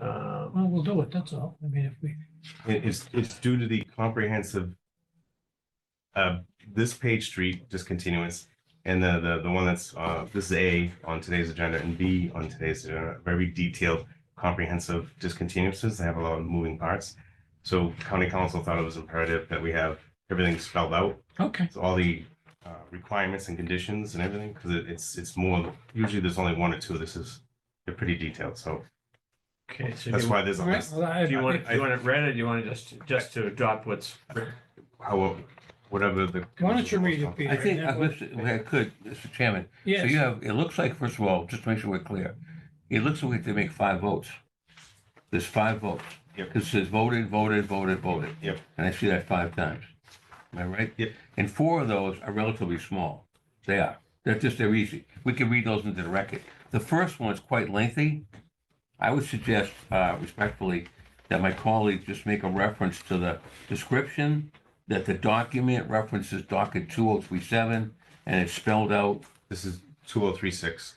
well, we'll do it, that's all. I mean, if we, It- It's, it's due to the comprehensive, uh, this page street discontinuance and the, the, the one that's, uh, this is A on today's agenda and B on today's agenda, very detailed, comprehensive discontinuances. They have a lot of moving parts. So county council thought it was imperative that we have everything spelled out, okay, It's all the, uh, requirements and conditions and everything, because it's, it's more, usually there's only one or two. This is, they're pretty detailed, so Okay, so do that's you, why there's all right. well, I- do you I want, think- do you want it read or do you want to just, just to adopt what's written? how, whatever the. Why don't you read it, Peter? I think, and uh, that was- Mr. if I could, Mr. Chairman, so you Yes, have, it looks like, first of all, just to make sure we're clear, it looks like we have to make five votes. There's five votes. Yep. Because it says voted, voted, voted, voted. Yep. And I see that five times. Am I right? Yep. And four of those are relatively small. They are. They're just, they're easy. We can read those into the record. The first one is quite lengthy. I would suggest uh, respectfully that my colleague just make a reference to the description, that the document references docket 2037, and it's spelled out, This is two oh three six.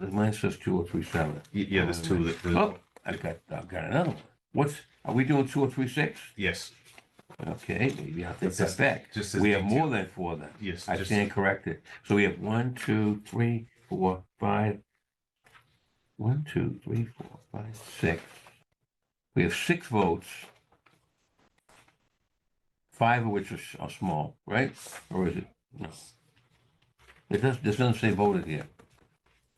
mine says 2037. Yeah, there's two. that- Oh, that- I've got, I've got another one. What's, are we doing 2036? Yes, Okay, maybe I'll take It's just- that back. just as We have detailed. more than four then. yes. I just- stand corrected. So we have one, two, three, four, five. One, two, three, four, five, six. We have six votes. Five of which are, s- are small, right? Or is it? No. It does, this doesn't say voted here.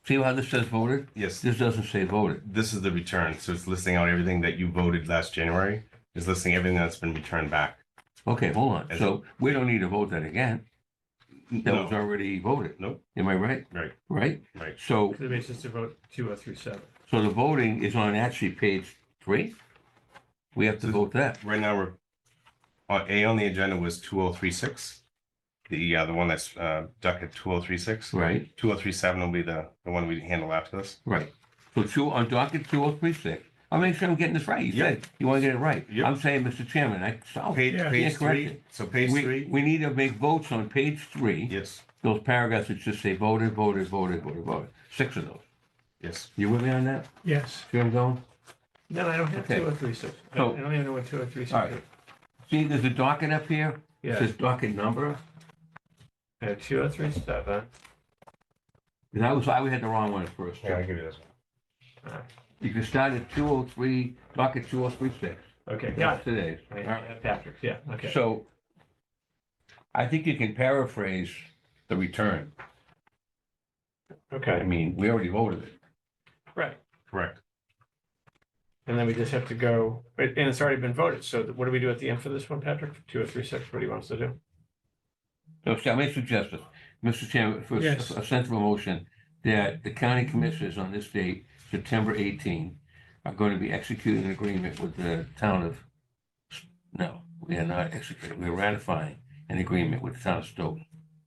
See how this says voted? Yes, This doesn't say voted. this is the return. So it's listing out everything that you voted last January. It's listing everything that's been returned back. Okay, hold on. As- So we don't need to vote that again. That was No, already voted. Nope. Am I right? Right. Right? right. So The basis to vote two oh three seven. So the voting is on actually page three? We have to vote that. Right now, we're, uh, A on the agenda was two oh three six. The, uh, the one that's, uh, docket two oh three six. Right, Two oh three seven will be the, the one we handle after this. right. So two, on docket two oh three six, I'll make sure I'm getting this right. You said you want to get it right. Yep. I'm saying, Mr. Chairman, I solved. Page, Yeah, page Oh, yeah, correct three, it. so page We, three, we need to make votes on page three, yes, those paragraphs that just say voted, voted, voted, voted, voted. Six of those. yes. You with me on that? yes. See where I'm going? No, I don't have Okay. two oh three six. I So- don't even know what two oh three All six is. right. See, there's a docket up here. It Yeah, says docket number. I have two oh three seven. That was, I had the wrong one at first. Here, I'll give you this one. You can start at two oh three, docket two oh three six. Okay, got That's today's. it. All right. I- Patrick, yeah, okay. So I think you can paraphrase the return. I Okay, mean, we already voted it. right. Correct. And then we just have to go, and it's already been voted. So what do we do at the end for this one, Patrick? Two oh three six, what do you want us to do? So see, I may suggest this, Mr. Chairman, for a Yes. a sensible motion that the county commissioners on this date, September eighteen, are going to be executing an agreement with the town of, no, we are not executing, we're ratifying an agreement with the town of Stoughton,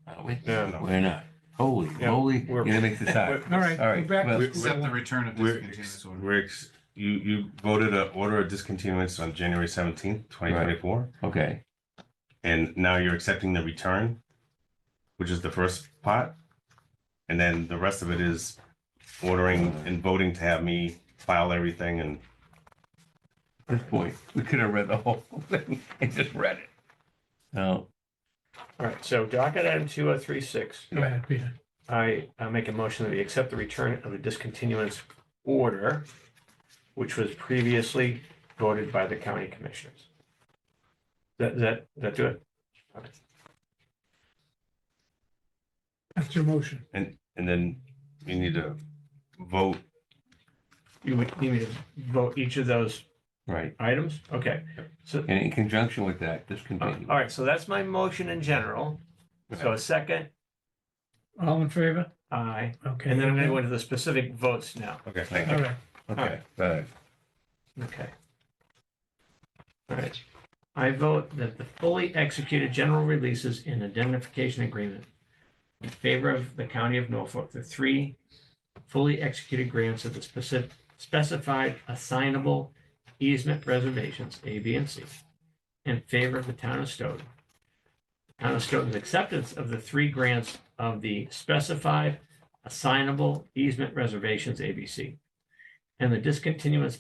aren't we? Yeah. No. We're not. Holy Yeah, moly, we're- you're gonna make this hard. All right, All we're right, back well- to Accept the school. return of We're, discontinuous ex- order. we're, ex- you, you voted a order of discontinuance on January seventeenth, twenty twenty-four. Okay. And now you're accepting the return, which is the first part. And then the rest of it is ordering and voting to have me file everything and this point, we could have read the whole thing and just read it. No, All right, so docket item two oh three six. Go ahead, Peter. I uh, make a motion that we accept the return of the discontinuance order, which was previously voted by the county commissioners. That, that, that do it? That's your motion. and then you need to vote. You would need me to vote each of those right. items? Okay. So, And in conjunction with that, uh, discontinue. all right, so that's my motion in general. So a second, All in favor? aye, Okay. and then I'm gonna go into the specific votes now. Okay. All right, Okay, right. Okay. All right. I vote that the fully executed general releases and indemnification agreement in favor of the county of Norfolk, the three fully executed grants of the specific specified assignable easement reservations, A, B, and C, in favor of the town of Stoughton. Town of Stoughton's acceptance of the three grants of the specified assignable easement reservations, A, B, C, and the discontinuance